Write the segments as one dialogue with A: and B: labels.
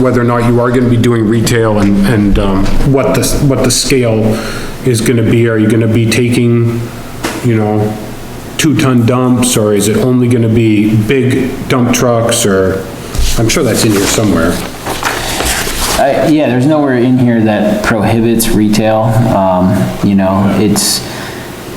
A: whether or not you are gonna be doing retail and, and, um, what the, what the scale is gonna be. Are you gonna be taking, you know, two-ton dumps, or is it only gonna be big dump trucks, or, I'm sure that's in here somewhere.
B: Uh, yeah, there's nowhere in here that prohibits retail, um, you know, it's,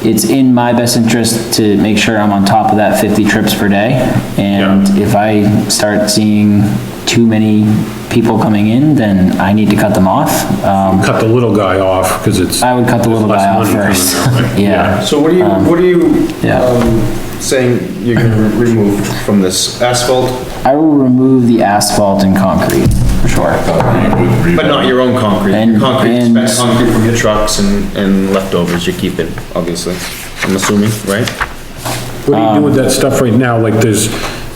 B: it's in my best interest to make sure I'm on top of that fifty trips per day. And if I start seeing too many people coming in, then I need to cut them off. Um,
A: Cut the little guy off, because it's.
B: I would cut the little
A: Less
B: guy off
A: money coming
B: first,
A: their way.
B: yeah.
C: So what are you, what are you,
B: Um, yeah.
C: um, saying you're gonna re- remove from this asphalt,
B: I will remove the asphalt and concrete, for sure.
C: but not your own concrete?
B: And-
C: Your Concrete,
B: and-
C: spent concrete from your trucks and, and leftovers, you keep it, obviously, I'm assuming, right?
A: What do you do with that stuff right now? Like, there's,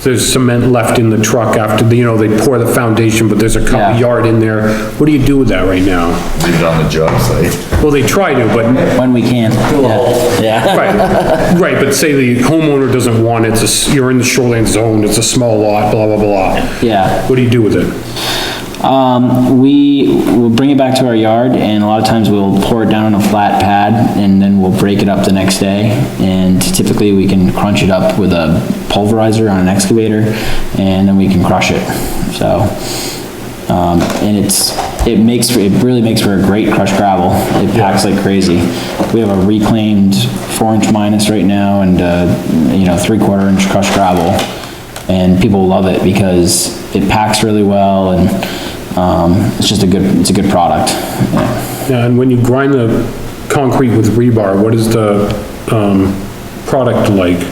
A: there's cement left in the truck after, the- you know, they pour the foundation, but there's a
B: Yeah.
A: couple yard in there. What do you do with that right now?
D: leave it on the job site.
A: Well, they try to, but,
B: When we can, yeah. yeah.
A: right, right, but say the homeowner doesn't want it, it's a s- you're in the shoreline zone, it's a small lot, blah, blah, blah.
B: Yeah.
A: What do you do with it?
B: Um, we will bring it back to our yard and a lot of times we'll pour it down on a flat pad and then we'll break it up the next day. And typically we can crunch it up with a pulverizer on an excavator and then we can crush it. So, um, and it's, it makes, for- it really makes for a great crushed gravel. It packs like crazy. We have a reclaimed four inch minus right now and, uh, you know, three quarter inch crushed gravel and people love it because it packs really well and um, it's just a good, it's a good product. Yeah.
A: And when you grind the concrete with rebar, what is the, um, product like?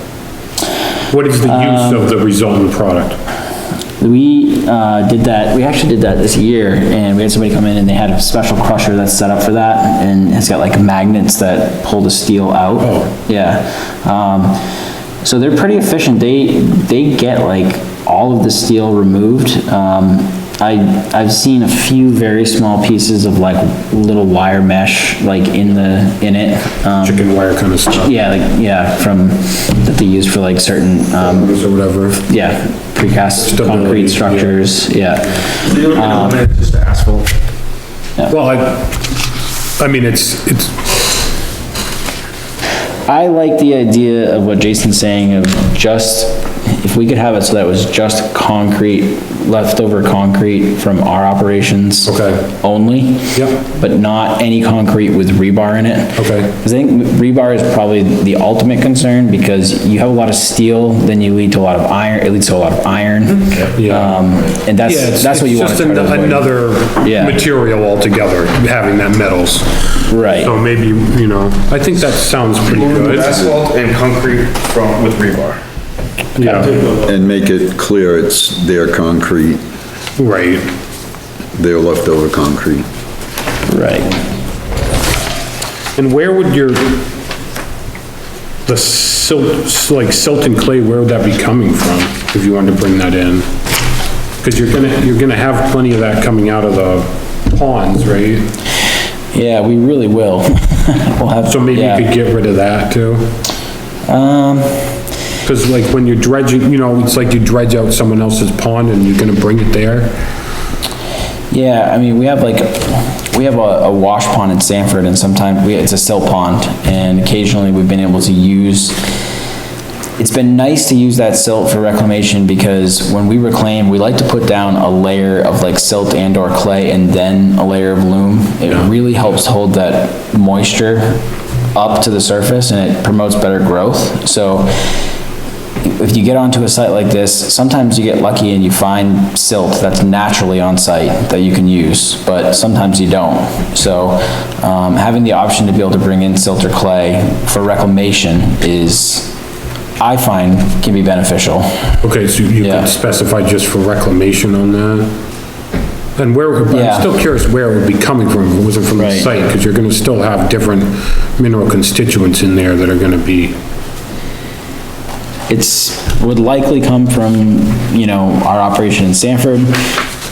A: What is the use of the
B: Um,
A: resultant product?
B: We uh, did that, we actually did that this year and we had somebody come in and they had a special crusher that's set up for that and it's got like magnets that pull the steel out.
A: Oh.
B: Yeah. Um, So they're pretty efficient. They, they get like all of the steel removed. Um, I, I've seen a few very small pieces of like little wire mesh like in the, in it. Um,
A: Chicken wire kind of stuff,
B: Yeah, like, yeah, from, that they use for like certain, um,
A: or whatever.
B: yeah, precast
A: Stability, yeah.
B: concrete structures, yeah.
C: So you're looking
B: Um,
C: at eliminating just the asphalt?
A: Well, I, I mean, it's, it's,
B: I like the idea of what Jason's saying of just, if we could have it so that it was just concrete, leftover concrete from our operations.
A: Okay.
B: Only.
A: Yep.
B: But not any concrete with rebar in it.
A: Okay.
B: Because I think rebar is probably the ultimate concern because you have a lot of steel, then you lead to a lot of iron, it leads to a lot of iron.
A: Mm-hmm. Yeah.
B: Um, and
A: yeah, it's,
B: that's, that's what
A: it's
B: you want to
A: just
B: try
A: an-
B: to avoid.
A: another
B: Yeah.
A: material altogether, having that metals.
B: Right.
A: So maybe, you know, I think that sounds pretty good.
C: Asphalt and concrete from, with rebar.
A: Yeah,
E: And make it clear it's their concrete,
A: right.
E: their leftover concrete.
B: Right.
A: And where would your, the silt, like silt and clay, where would that be coming from, if you wanted to bring that in? Because you're gonna, you're gonna have plenty of that coming out of the ponds, right?
B: Yeah, we really will. We'll have.
A: So maybe
B: yeah.
A: you could get rid of that too?
B: Um,
A: Because like when you're dredging, you know, it's like you dredge out someone else's pond and you're gonna bring it there.
B: yeah, I mean, we have like, we have a, a wash pond in Sanford and sometimes we, it's a silt pond and occasionally we've been able to use, it's been nice to use that silt for reclamation because when we reclaim, we like to put down a layer of like silt and or clay and then a layer of loam. It really helps hold that moisture up to the surface and it promotes better growth. So if you get onto a site like this, sometimes you get lucky and you find silt that's naturally on site that you can use, but sometimes you don't. So, um, having the option to be able to bring in silt or clay for reclamation is, I find, can be beneficial.
A: Okay, so you
B: Yeah.
A: could specify just for reclamation on that? And where, but
B: Yeah.
A: I'm still curious where it would be coming from, if it wasn't from the
B: Right.
A: site, because you're gonna still have different mineral constituents in there that are gonna be,
B: It's, would likely come from, you know, our operation in Sanford.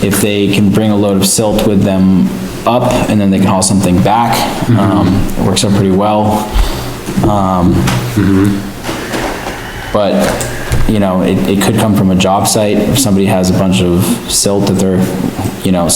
B: If they can bring a load of silt with them up and then they can haul something back, um, it works out pretty well. Um, but you know, it, it could come from a job site, if somebody has a bunch of silt that they're, you know,